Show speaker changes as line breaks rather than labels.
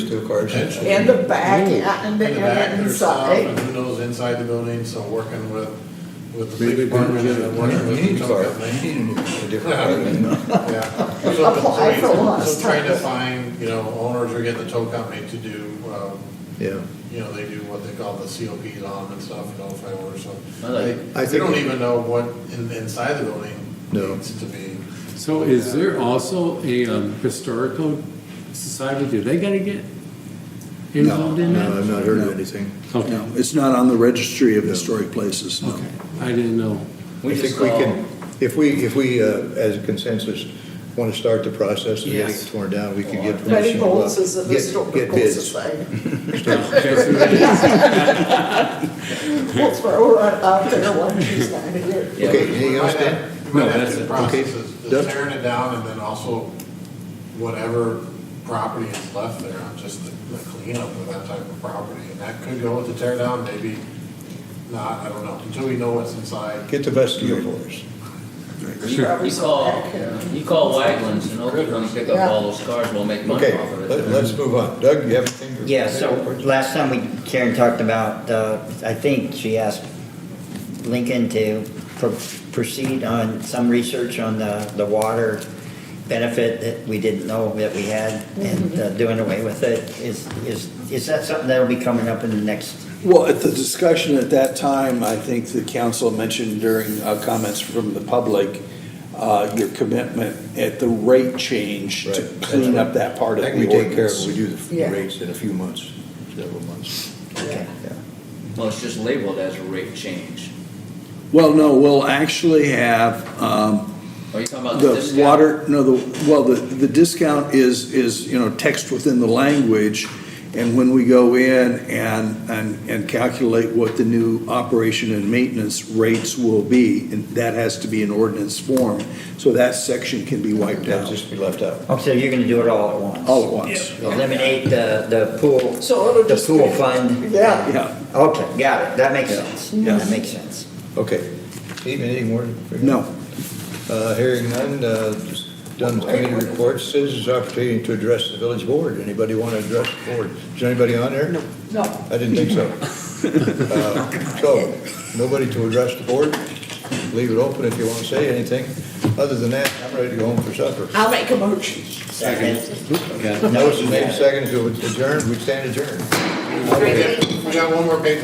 Two cars.
Potentially.
And the back,
Ooh.
and the,
In the back,
and the
there's stuff, and
inside.
who knows inside the building, so working with, with the
Maybe
big
we can
department
get
and
a-
then
You
working with the
need
tow
car.
company.
You need a different car.
Yeah. So-
Apply for
so-
one.
So trying to find, you know, owners or get the tow company to do, um,
Yeah,
you know, they do what they call the COPs on them and stuff, you know, if I order
I like-
something.
I
They
think-
don't even know what in- inside the building
No.
needs to be.
So is there also a um, historical society, do they gotta get involved in
no,
that?
I've not heard of
No.
anything.
Okay,
No, it's not on the registry of historic places, no.
okay, I didn't know.
I
We just
think we
saw,
can, if we, if we, uh, as a consensus, want to start the process of getting
Yes.
it torn down, we could get
Betty
permission to uh,
Bowles is a
get, get
historical
bids.
society.
Okay, so that is-
We'll throw her out there when she's not here.
Yeah.
Okay, anything
You might
else,
have-
Dan?
You
No,
might have
that's
two
it.
Okay.
processes,
Done.
just tearing it down and then also whatever property is left there, just the the cleanup of that type of property. And that could go with the tear down, maybe not, I don't know, until we know what's inside.
Get the best deal for us.
Sure.
You you call, you call Wagland's and they'll come pick up all those cars, and we'll make money
Okay,
off of
let-
it.
let's move on. Doug, you have anything? to-
Yeah, so last time we, Karen talked about, uh, I think she asked Lincoln to pro- proceed on some research on the, the water benefit that we didn't know that we had and
Mm-hmm.
uh, doing away with it. Is, is, is that something that'll be coming up in the next?
Well, at the discussion at that time, I think the council mentioned during uh, comments from the public, uh, your commitment at the rate change
Right,
to
that's
clean
right.
up that part of
I
the
think we take care of,
ordinance.
it. we do the
Yeah.
rates in a few months, several months.
Okay, yeah.
Well, it's just labeled as a rate change.
Well, no, we'll actually have um,
Are you talking about the
the
discount?
water, no, the, well, the, the discount is, is, you know, text within the language. And when we go in and, and, and calculate what the new operation and maintenance rates will be, and that has to be in ordinance form. So that section can be wiped
That'll
out
just be left out.
Oh, so you're gonna do it all at once?
all at once.
Eliminate the, the pool,
So it'll
the
just.
pool
be-
fund?
Yeah,
Yeah,
Okay, got it. That makes
Yeah.
sense.
Yeah.
That makes sense.
Okay. Steve, anything more?
no,
Uh, Hearing none, uh, just done with community reports. Citizens' opportunity to address the village board. Anybody want to address the board? Is anybody on there? No.
no,
I didn't think so. Uh, So, nobody to address the board? Leave it open if you want to say anything. Other than that, I'm ready to go home for supper.
I'll make a motion.
Motion made second to adjourn, we stand adjourned.
We got one more page